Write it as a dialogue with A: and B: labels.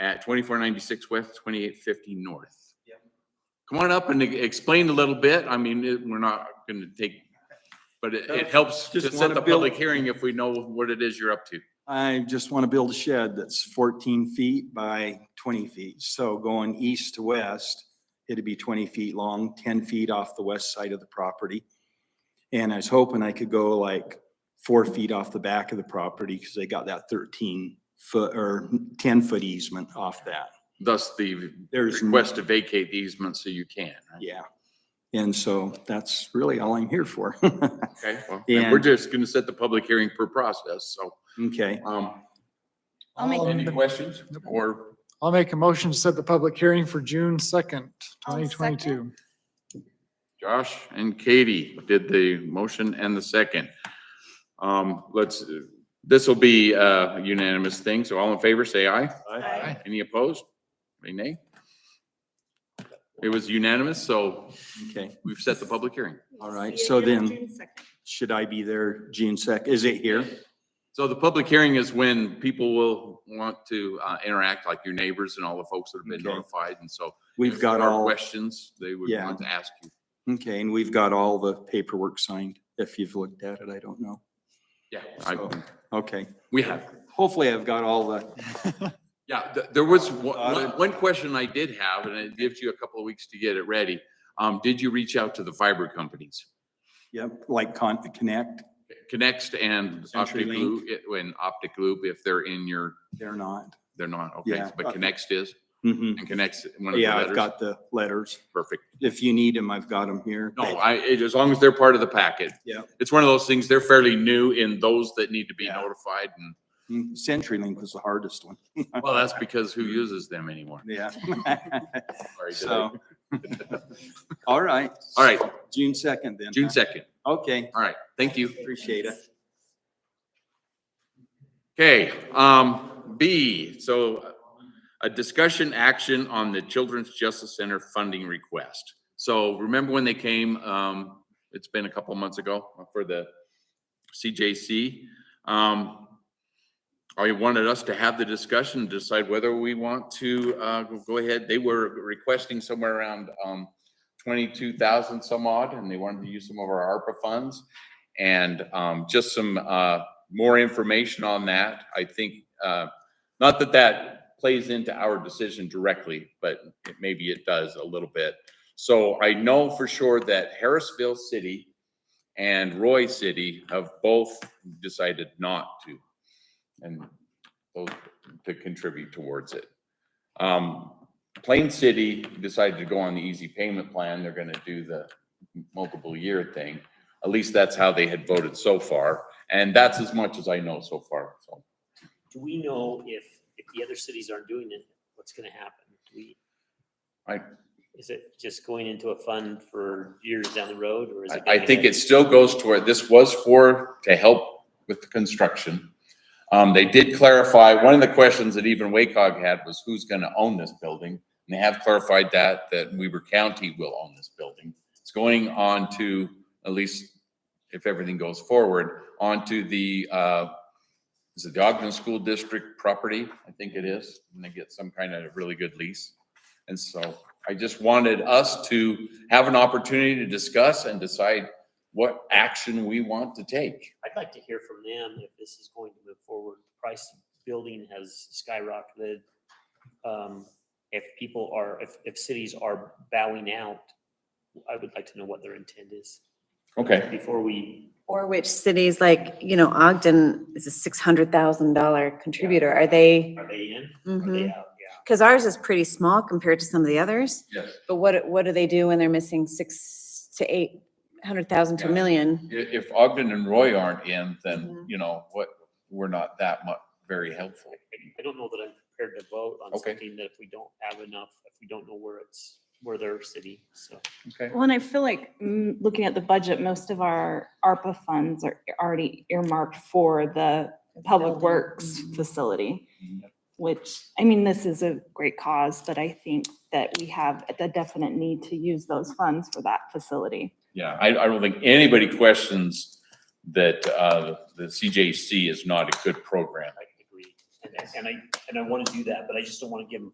A: at twenty-four ninety-six west, twenty-eight fifty north.
B: Yep.
A: Come on up and e- explain a little bit. I mean, it- we're not gonna take, but it, it helps to
B: Just
A: set
B: wanna
A: the
B: build-
A: public hearing if we know what it is you're up to.
B: I just want to build a shed that's fourteen feet by twenty feet. So going east to west, it'd be twenty feet long, ten feet off the west side of the property. And I was hoping I could go like four feet off the back of the property because they got that thirteen foot or ten foot easement off that.
A: Thus the
B: There's.
A: request to vacate the easement so you can, right?
B: Yeah. And so that's really all I'm here for.
A: Okay, well, and we're
B: And-
A: just gonna set the public hearing per process, so,
B: Okay.
A: um,
C: I'll
B: Um,
C: make-
A: any questions? Or,
D: I'll make a motion to set the public hearing for June second,
C: I'll
D: twenty
C: second.
D: twenty-two.
A: Josh and Katie did the motion and the second. Um, let's, this will be a unanimous thing, so all in favor, say aye.
C: Aye.
A: Any opposed? Any nay? It was unanimous, so
B: Okay.
A: we've set the public hearing.
B: All right,
C: See you
B: so
C: again on
B: then-
C: June 2nd.
B: Should I be there June sec? Is it here?
A: So the public hearing is when people will want to, uh, interact, like your neighbors and all the folks that have been
B: Okay.
A: notified, and so.
B: We've
A: if
B: got
A: there are
B: all.
A: Questions they would
B: Yeah.
A: want to ask you.
B: Okay, and we've got all the paperwork signed. If you've looked at it, I don't know.
A: Yeah,
B: So-
A: I,
B: Okay,
A: we have.
B: hopefully I've got all the,
A: Yeah, th- there was one,
B: Got
A: one- one question I did have, and it gives you a couple of weeks to get it ready. Um, did you reach out to the fiber companies?
B: yep, like con, connect,
A: Connext and Optic
B: CenturyLink.
A: Loop, it- and Optic Loop, if they're in your,
B: they're not.
A: they're not, okay,
B: Yeah.
A: but Connext is,
B: Mhm.
A: and Connect's one of the
B: Yeah, I've
A: letters.
B: got the letters.
A: Perfect.
B: If you need them, I've got them here.
A: No, I, it- as long as they're part of the packet.
B: Yeah.
A: It's one of those things, they're fairly new in those that need to be
B: Yeah.
A: notified, and,
B: Mm, CenturyLink was the hardest one.
A: well, that's because who uses them anymore?
B: Yeah.
A: Sorry, did I-
B: So. All right.
A: All right,
B: June second then.
A: June second.
B: Okay,
A: All right, thank you.
B: appreciate it.
A: Okay, um, B, so a discussion action on the Children's Justice Center funding request. So remember when they came, um, it's been a couple months ago for the CJC. Um, I wanted us to have the discussion, decide whether we want to, uh, go ahead. They were requesting somewhere around, um, twenty-two thousand some odd, and they wanted to use some of our ARPA funds. And, um, just some, uh, more information on that. I think, uh, not that that plays into our decision directly, but it- maybe it does a little bit. So I know for sure that Harrisville City and Roy City have both decided not to and both to contribute towards it. Um, Plain City decided to go on the easy payment plan. They're gonna do the multiple year thing. At least that's how they had voted so far, and that's as much as I know so far, so.
E: Do we know if, if the other cities aren't doing it, what's gonna happen? Do we?
A: I-
E: Is it just going into a fund for years down the road or is it?
A: I, I
E: gonna
A: think
E: get-
A: it still goes toward, this was for, to help with the construction. Um, they did clarify, one of the questions that even WACOG had was who's gonna own this building? And they have clarified that, that Weber County will own this building. It's going on to, at least if everything goes forward, onto the, uh, is it the Ogden School District property? I think it is, and they get some kind of really good lease. And so I just wanted us to have an opportunity to discuss and decide what action we want to take.
E: I'd like to hear from them if this is going to move forward. Price of building has skyrocketed. Um, if people are, if, if cities are bowing out, I would like to know what their intent is
A: Okay.
E: before we,
F: Or which cities, like, you know, Ogden is a six hundred thousand dollar contributor, are they?
E: are they in? Are they
F: Because
E: out? Yeah.
F: ours is pretty small compared to some of the others,
A: Yes.
F: but what, what do they do when they're missing six to eight hundred thousand to a
A: Yeah.
F: million?
A: I- If Ogden and Roy aren't in, then,
F: Mhm.
A: you know, what, we're not that much, very helpful.
E: I don't know that I'm prepared to vote on
A: Okay.
E: something that if we don't have enough, if we don't know where it's, where their city, so.
A: Okay.
G: Well, and I feel like, mm, looking at the budget, most of our ARPA funds are already earmarked for the Public Works facility, which, I mean, this is a great cause, but I think that we have a definite need to use those funds for that facility.
A: Yeah, I, I don't think anybody questions that, uh, the CJC is not a good program.
E: I agree. And And I, and I want to do that, but I just don't want to give them